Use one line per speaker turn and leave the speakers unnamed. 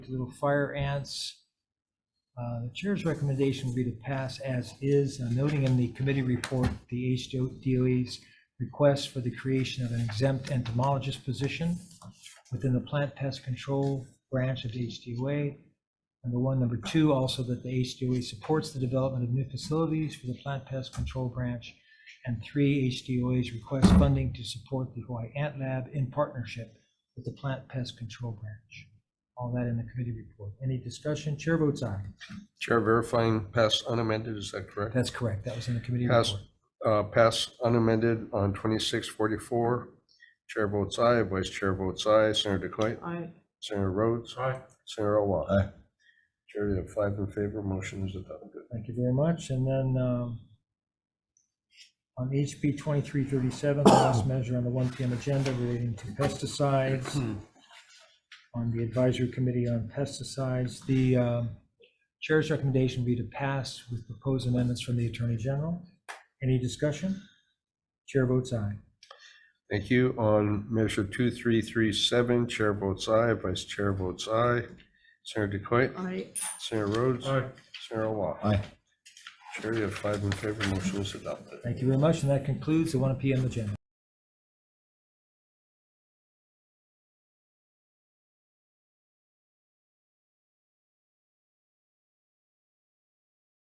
little fire ants. Uh, The chair's recommendation would be to pass as is, uh, noting in the committee report, the HDOE's request for the creation of an exempt entomologist position within the plant pest control branch of the HDOA. Number one, number two, also that the HDOA supports the development of new facilities for the plant pest control branch. And three, HDOA's request funding to support the Hawaii Ant Lab in partnership with the plant pest control branch. All that in the committee report. Any discussion? Chair votes aye.
Chair verifying pass unamended, is that correct?
That's correct. That was in the committee
Pass,
report.
uh, pass unamended on twenty-six forty-four. Chair votes aye, Vice Chair votes aye, Senator Decoit,
Aye.
Senator Rhodes,
Aye.
Senator Awat.
Aye.
Chair, you have five in favor, motion is adopted.
Thank you very much. And then um, on HB 2337, the last measure on the 1 PM agenda relating to pesticides, on the advisory committee on pesticides, the um, chair's recommendation would be to pass with proposed amendments from the Attorney General. Any discussion? Chair votes aye.
Thank you. On measure two, three, three, seven, Chair votes aye, Vice Chair votes aye, Senator Decoit,
Aye.
Senator Rhodes,
Aye.
Senator Awat.
Aye.
Chair, you have five in favor, motion is adopted.
Thank you very much, and that concludes the 1 PM agenda.